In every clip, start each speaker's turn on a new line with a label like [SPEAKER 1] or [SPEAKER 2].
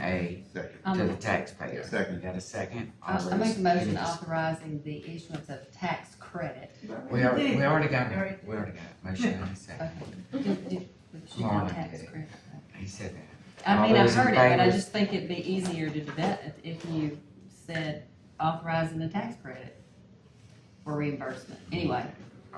[SPEAKER 1] pay
[SPEAKER 2] Second.
[SPEAKER 1] to
[SPEAKER 3] Um,
[SPEAKER 1] the taxpayer.
[SPEAKER 2] Second.
[SPEAKER 1] You got a second?
[SPEAKER 3] Uh, I
[SPEAKER 1] All
[SPEAKER 3] I make
[SPEAKER 1] those-
[SPEAKER 3] a motion
[SPEAKER 1] any-
[SPEAKER 3] authorizing the issuance of tax credit.
[SPEAKER 1] We already, we already got it, we already got it, motion and a
[SPEAKER 3] Okay.
[SPEAKER 1] second,
[SPEAKER 3] Do- do- should go
[SPEAKER 1] Marla
[SPEAKER 3] tax
[SPEAKER 1] did it.
[SPEAKER 3] credit.
[SPEAKER 1] he said that. All
[SPEAKER 3] I mean, I
[SPEAKER 1] those in
[SPEAKER 3] heard it, but I
[SPEAKER 1] favor?
[SPEAKER 3] just think it'd be easier to do that if- if you said authorizing the tax credit for reimbursement. Anyway,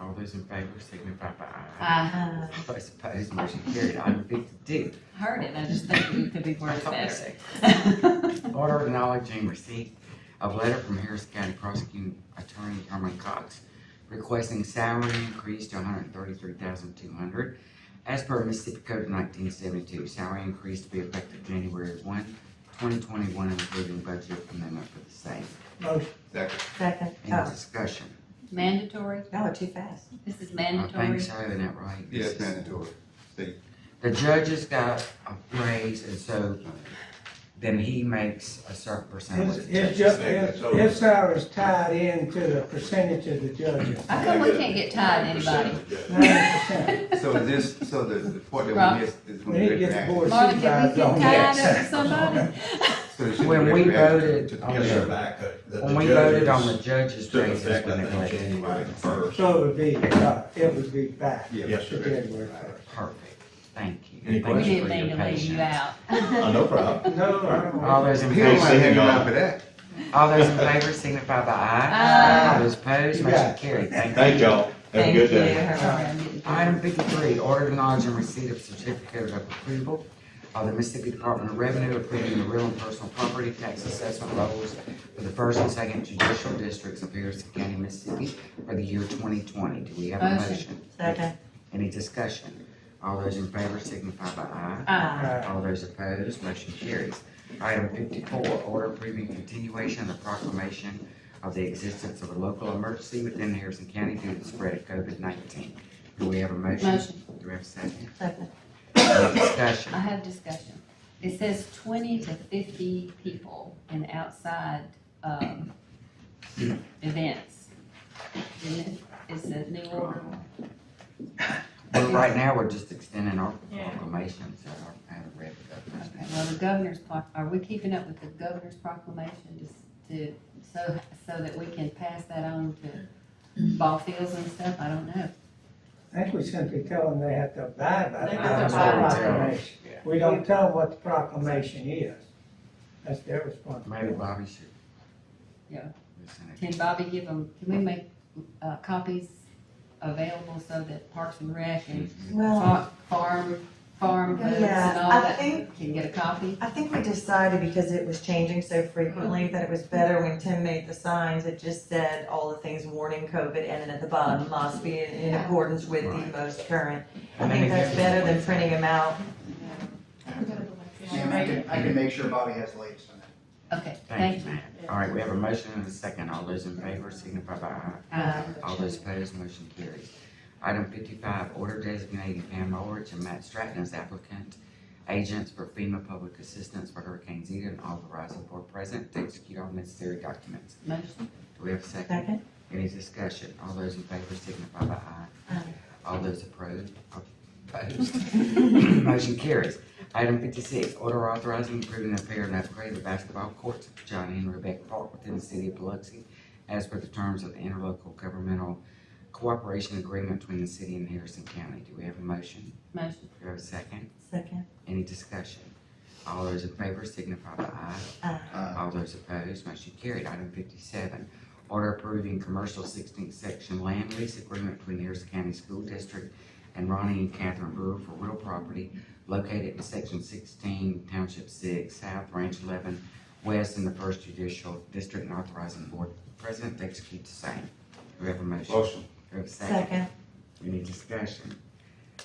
[SPEAKER 1] All those in favor signify by aye.
[SPEAKER 3] I
[SPEAKER 1] Those opposed, motion carried, item fifty-two.
[SPEAKER 3] heard it, I just think it could be
[SPEAKER 1] I
[SPEAKER 3] worded
[SPEAKER 1] thought we
[SPEAKER 3] better.
[SPEAKER 1] said- Order acknowledging receipt of letter from Harris County Prosecuting Attorney Herman Cox requesting salary increase to 133200 hundred thirty-three thousand two hundred as per Mississippi Code nineteen seventy-two, salary increase to be effective January 1, 2021, including budget amendment for the same.
[SPEAKER 4] Motion.
[SPEAKER 2] Second.
[SPEAKER 5] Second,
[SPEAKER 1] Any
[SPEAKER 5] oh,
[SPEAKER 1] discussion?
[SPEAKER 3] Mandatory,
[SPEAKER 5] y'all are too fast.
[SPEAKER 3] this is
[SPEAKER 1] I think
[SPEAKER 3] mandatory.
[SPEAKER 1] so, isn't that right?
[SPEAKER 2] Yes,
[SPEAKER 1] This is-
[SPEAKER 2] mandatory.
[SPEAKER 1] The judges got a raise, and so then he makes a certain percentage.
[SPEAKER 4] His,
[SPEAKER 1] of the
[SPEAKER 4] his,
[SPEAKER 1] judge's
[SPEAKER 4] ju- his, his salary's tied in to the percentage of the judges,
[SPEAKER 3] How come we can't get tied to anybody?
[SPEAKER 4] ninety percent.
[SPEAKER 2] So this, so the, the part that
[SPEAKER 3] Rob.
[SPEAKER 2] we missed is
[SPEAKER 4] We
[SPEAKER 2] when
[SPEAKER 4] need
[SPEAKER 2] we
[SPEAKER 4] to
[SPEAKER 2] read
[SPEAKER 4] get the
[SPEAKER 2] back.
[SPEAKER 4] board
[SPEAKER 3] Marla, can we
[SPEAKER 4] supervised on
[SPEAKER 3] get tied
[SPEAKER 4] that.
[SPEAKER 3] up to somebody?
[SPEAKER 2] So it should be
[SPEAKER 1] When we
[SPEAKER 2] read back to-
[SPEAKER 1] voted
[SPEAKER 2] to the
[SPEAKER 1] on
[SPEAKER 6] Yes,
[SPEAKER 1] the-
[SPEAKER 6] sir,
[SPEAKER 2] judge.
[SPEAKER 6] back, uh, the-
[SPEAKER 1] When
[SPEAKER 6] the
[SPEAKER 1] we voted
[SPEAKER 6] judges
[SPEAKER 1] on the judges'
[SPEAKER 6] Took
[SPEAKER 1] raises
[SPEAKER 6] effect,
[SPEAKER 1] when
[SPEAKER 6] I
[SPEAKER 1] it
[SPEAKER 6] think,
[SPEAKER 1] was
[SPEAKER 6] January first.
[SPEAKER 4] So it would be, uh, it would be back
[SPEAKER 2] Yeah,
[SPEAKER 6] Yes,
[SPEAKER 4] to
[SPEAKER 6] sir.
[SPEAKER 4] January first.
[SPEAKER 1] perfect, thank you.
[SPEAKER 6] Any
[SPEAKER 1] Thank
[SPEAKER 3] We
[SPEAKER 1] you
[SPEAKER 3] didn't
[SPEAKER 1] for your
[SPEAKER 3] mean to leave you
[SPEAKER 1] patience.
[SPEAKER 3] out.
[SPEAKER 6] Uh, no problem.
[SPEAKER 4] No, I don't.
[SPEAKER 1] All those in
[SPEAKER 2] He don't
[SPEAKER 1] favor,
[SPEAKER 6] Hey,
[SPEAKER 2] mind
[SPEAKER 6] see
[SPEAKER 2] hanging
[SPEAKER 6] y'all.
[SPEAKER 2] out for that.
[SPEAKER 1] all those in favor signify by aye.
[SPEAKER 3] Aye.
[SPEAKER 1] All those opposed,
[SPEAKER 4] You
[SPEAKER 1] motion
[SPEAKER 4] got it.
[SPEAKER 1] carried, thank you.
[SPEAKER 6] Thank y'all. Have a
[SPEAKER 5] Thank
[SPEAKER 6] good
[SPEAKER 5] you.
[SPEAKER 6] day.
[SPEAKER 3] Sorry, I'm getting-
[SPEAKER 1] Item fifty-three, order acknowledging receipt of certificate of approval of the Mississippi Department of Revenue approving the real and personal property tax assessment levels for the first and second judicial districts of Harrison County, Mississippi for the year twenty twenty. Do we have a
[SPEAKER 3] Motion.
[SPEAKER 1] motion?
[SPEAKER 5] Second,
[SPEAKER 1] Any discussion? All those in favor signify by aye.
[SPEAKER 5] aye.
[SPEAKER 4] Uh,
[SPEAKER 1] All those opposed, motion carries. Item fifty-four, order approving continuation of the proclamation of the existence of a local emergency within Harrison County due to the spread of COVID nineteen. Do we have a motion?
[SPEAKER 3] Motion.
[SPEAKER 1] Do we have a second?
[SPEAKER 5] second,
[SPEAKER 1] Any
[SPEAKER 3] I
[SPEAKER 1] discussion?
[SPEAKER 3] have discussion. It says twenty to fifty people in outside, um, events. Isn't it? It's a new order.
[SPEAKER 1] But right now, we're just extending our proclamation, so I haven't read the
[SPEAKER 3] Okay,
[SPEAKER 1] government.
[SPEAKER 3] well, the governor's pro, are we keeping up with the governor's proclamation just to, so, so that we can pass that on to ball fields and stuff? I don't know.
[SPEAKER 4] I think we simply tell them they have to abide by
[SPEAKER 7] They
[SPEAKER 4] the
[SPEAKER 7] have to
[SPEAKER 1] abide by it.
[SPEAKER 4] proclamation. We don't tell them what the proclamation is. That's their
[SPEAKER 1] Maybe
[SPEAKER 4] responsibility.
[SPEAKER 1] Bobby should.
[SPEAKER 3] Yeah.
[SPEAKER 1] Listen to-
[SPEAKER 3] Can Bobby give them, can we make, uh, copies available so that Parks and Rec and
[SPEAKER 5] well,
[SPEAKER 3] Fa- Farm, farm folks
[SPEAKER 5] Yeah,
[SPEAKER 3] and all
[SPEAKER 5] I
[SPEAKER 3] that
[SPEAKER 5] think-
[SPEAKER 3] can get a copy.
[SPEAKER 5] I think we decided because it was changing so frequently
[SPEAKER 1] Mm-hmm.
[SPEAKER 5] that it was better when Tim made the signs, it just said all the things warning COVID and then at the bottom must be in- in accordance with
[SPEAKER 1] Mm-hmm. Right.
[SPEAKER 5] the most current. I
[SPEAKER 1] And then
[SPEAKER 5] think that's
[SPEAKER 1] again-
[SPEAKER 5] better than printing them out.
[SPEAKER 8] Sam, I can, I can make sure Bobby has lights on that.
[SPEAKER 3] Okay,
[SPEAKER 1] Thank you, ma'am. All right, we have a motion and a second. All those in favor signify by aye.
[SPEAKER 3] Uh,
[SPEAKER 1] All those opposed, motion carries. Item fifty-five, order designating Pam Ulrich and Matt Stratton as applicant agents for FEMA public assistance for Hurricane Zeta and authorizing for president to execute all necessary documents.
[SPEAKER 3] motion,
[SPEAKER 1] Do we have a second?
[SPEAKER 5] Second,
[SPEAKER 1] Any discussion? All those in favor signify by aye.
[SPEAKER 5] Aye.
[SPEAKER 1] All those opposed, opposed, motion carries. Item fifty-six, order authorizing approving the repair and upgrade of basketball courts at John and Rebecca Park within the city of Biloxi as per the terms of the interlocal governmental cooperation agreement between the city and Harrison County. Do we have a motion?
[SPEAKER 3] motion,
[SPEAKER 1] Do we have a second?
[SPEAKER 5] second,
[SPEAKER 1] Any discussion? All those in favor signify by aye.
[SPEAKER 5] aye.
[SPEAKER 2] Uh,
[SPEAKER 1] All those opposed, motion carried. Item fifty-seven, order approving commercial sixteenth section land lease agreement between Harrison County School District and Ronnie and Catherine Brewer for real property located in section sixteen, township six, south, range eleven, west in the first judicial district and authorizing board president to execute the same. Do we have a motion? Do
[SPEAKER 2] Motion.
[SPEAKER 1] we have a second?
[SPEAKER 5] Second,
[SPEAKER 1] Any discussion?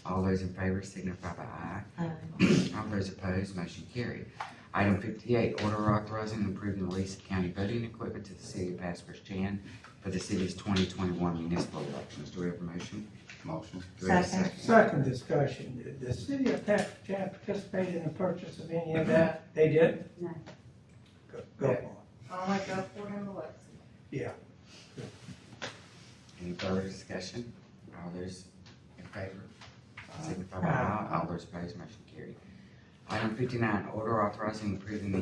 [SPEAKER 1] All those in favor signify by aye.
[SPEAKER 5] aye.
[SPEAKER 1] All those opposed, motion carried. Item fifty-eight, order authorizing and approving the lease of county voting equipment to the city of Pasco Chan for the city's twenty twenty-one municipal elections. Do we have a motion?
[SPEAKER 2] Motion.
[SPEAKER 1] Do we have a
[SPEAKER 5] Second.
[SPEAKER 4] Second discussion, did the city of Patrick participate in the purchase of any of that? They did?
[SPEAKER 3] No.
[SPEAKER 4] Go go on.
[SPEAKER 7] Only go for him, Alexis.
[SPEAKER 1] Any further discussion? All those in favor? Signify by
[SPEAKER 4] Aye.
[SPEAKER 1] aye. All those opposed, motion carried. Item fifty-nine, order authorizing and approving the